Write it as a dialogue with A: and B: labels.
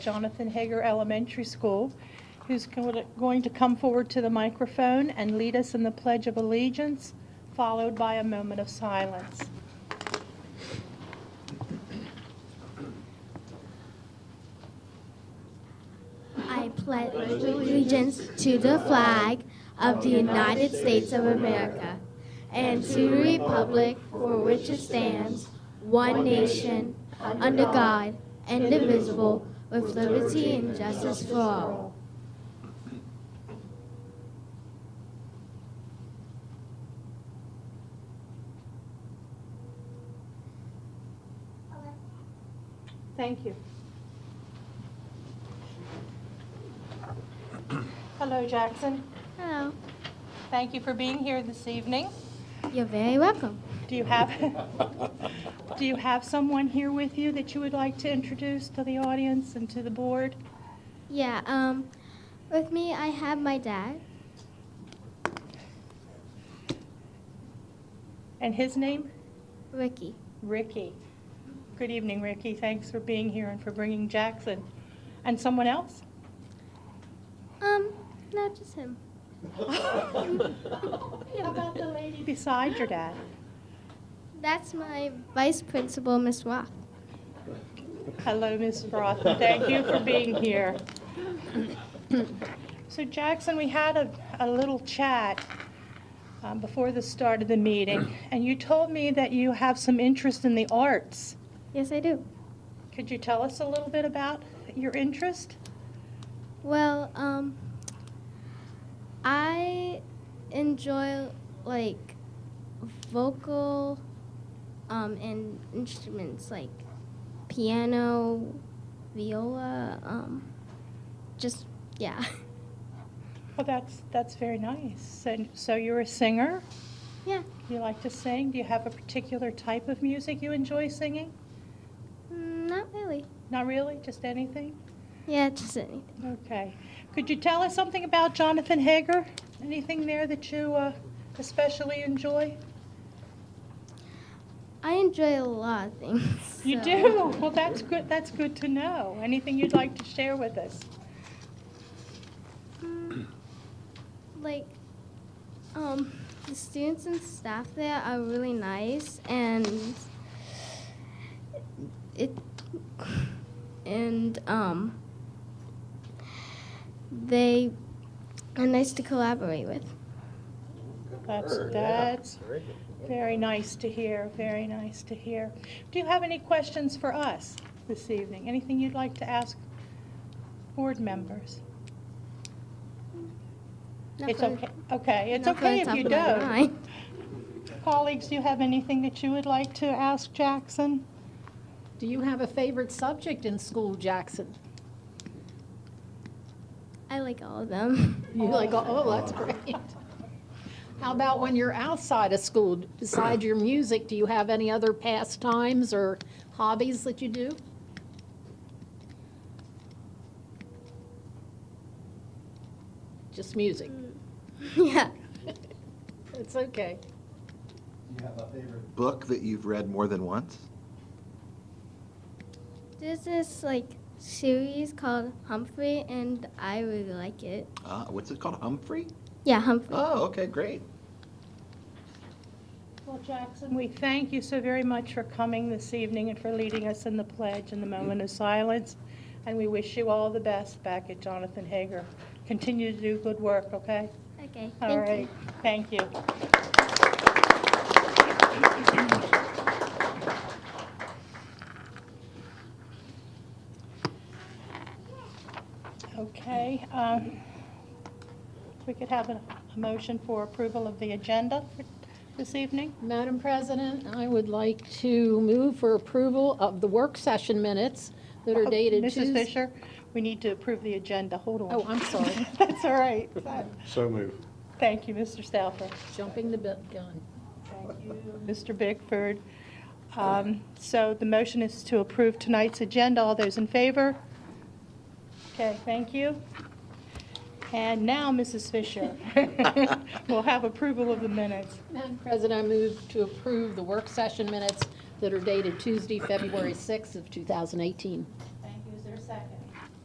A: Jonathan Hager Elementary School, who's go- going to come forward to the microphone and lead us in the Pledge of Allegiance, followed by a moment of silence.
B: I pledge allegiance to the flag of the United States of America and to the republic for which it stands, one nation, under God, indivisible, with liberty and justice for all.
A: Thank you. Hello, Jackson.
B: Hello.
A: Thank you for being here this evening.
B: You're very welcome.
A: Do you have, do you have someone here with you that you would like to introduce to the audience and to the board?
B: Yeah, um, with me, I have my dad.
A: And his name?
B: Ricky.
A: Ricky. Good evening, Ricky. Thanks for being here and for bringing Jackson. And someone else?
B: Um, not just him.
A: How about the lady beside your dad?
B: That's my vice principal, Miss Roth.
A: Hello, Ms. Roth. Thank you for being here. So Jackson, we had a, a little chat um, before the start of the meeting, and you told me that you have some interest in the arts.
B: Yes, I do.
A: Could you tell us a little bit about your interest?
B: Well, um, I enjoy like vocal um, and instruments like piano, viola, um, just yeah,
A: Well, that's, that's very nice. And so you're a singer?
B: yeah.
A: You like to sing? Do you have a particular type of music you enjoy singing?
B: Mm, Not really.
A: Not really, just anything?
B: Yeah, just anything.
A: Okay. Could you tell us something about Jonathan Hager? Anything there that you uh, especially enjoy?
B: I enjoy a lot of things.
A: You
B: so-
A: do? Well, that's good, that's good to know. Anything you'd like to share with us?
B: Mm, like um the students and staff there are really nice and it and um they are nice to collaborate with
A: That's, that's very nice to hear, very nice to hear. Do you have any questions for us this evening? Anything you'd like to ask board members?
B: Not
A: It's
B: for-
A: okay, okay, it's
B: not for the
A: okay if
B: top
A: you
B: of my
A: don't.
B: mind.
A: Colleagues, do you have anything that you would like to ask Jackson?
C: Do you have a favorite subject in school, Jackson?
B: i like all of them
C: You like, oh, that's great. How about when you're outside of school, besides your music, do you have any other pastimes or hobbies that you do? Just music.
A: Mm.
B: yeah
C: It's okay.
D: Do you have a favorite book that you've read more than once?
B: there's this like series called humphrey and i really like it
D: Uh, what's it called? Humphrey?
B: yeah humphrey
D: Oh, okay, great.
A: Well, Jackson, we thank you so very much for coming this evening and for leading us in the pledge and the moment of silence. And we wish you all the best back at Jonathan Hager. Continue to do good work, okay?
B: okay
A: All
B: thank you
A: right, thank you. Okay, um, if we could have a a motion for approval of the agenda for this evening?
C: Madam President, I would like to move for approval of the work session minutes that are
A: Oh,
C: dated
A: Mrs.
C: Tuesday.
A: Fisher, we need to approve the agenda, hold on.
C: Oh, I'm sorry,
A: That's all right.
E: So move.
A: Thank you, Mr. Stauffer.
C: jumping the gun.
A: Thank you, Mr. Bickford. Um, So the motion is to approve tonight's agenda. All those in favor? Okay, thank you. And now, Mrs. Fisher, we'll have approval of the minutes.
C: Madam President, I move to approve the work session minutes that are dated Tuesday, February 6th of 2018.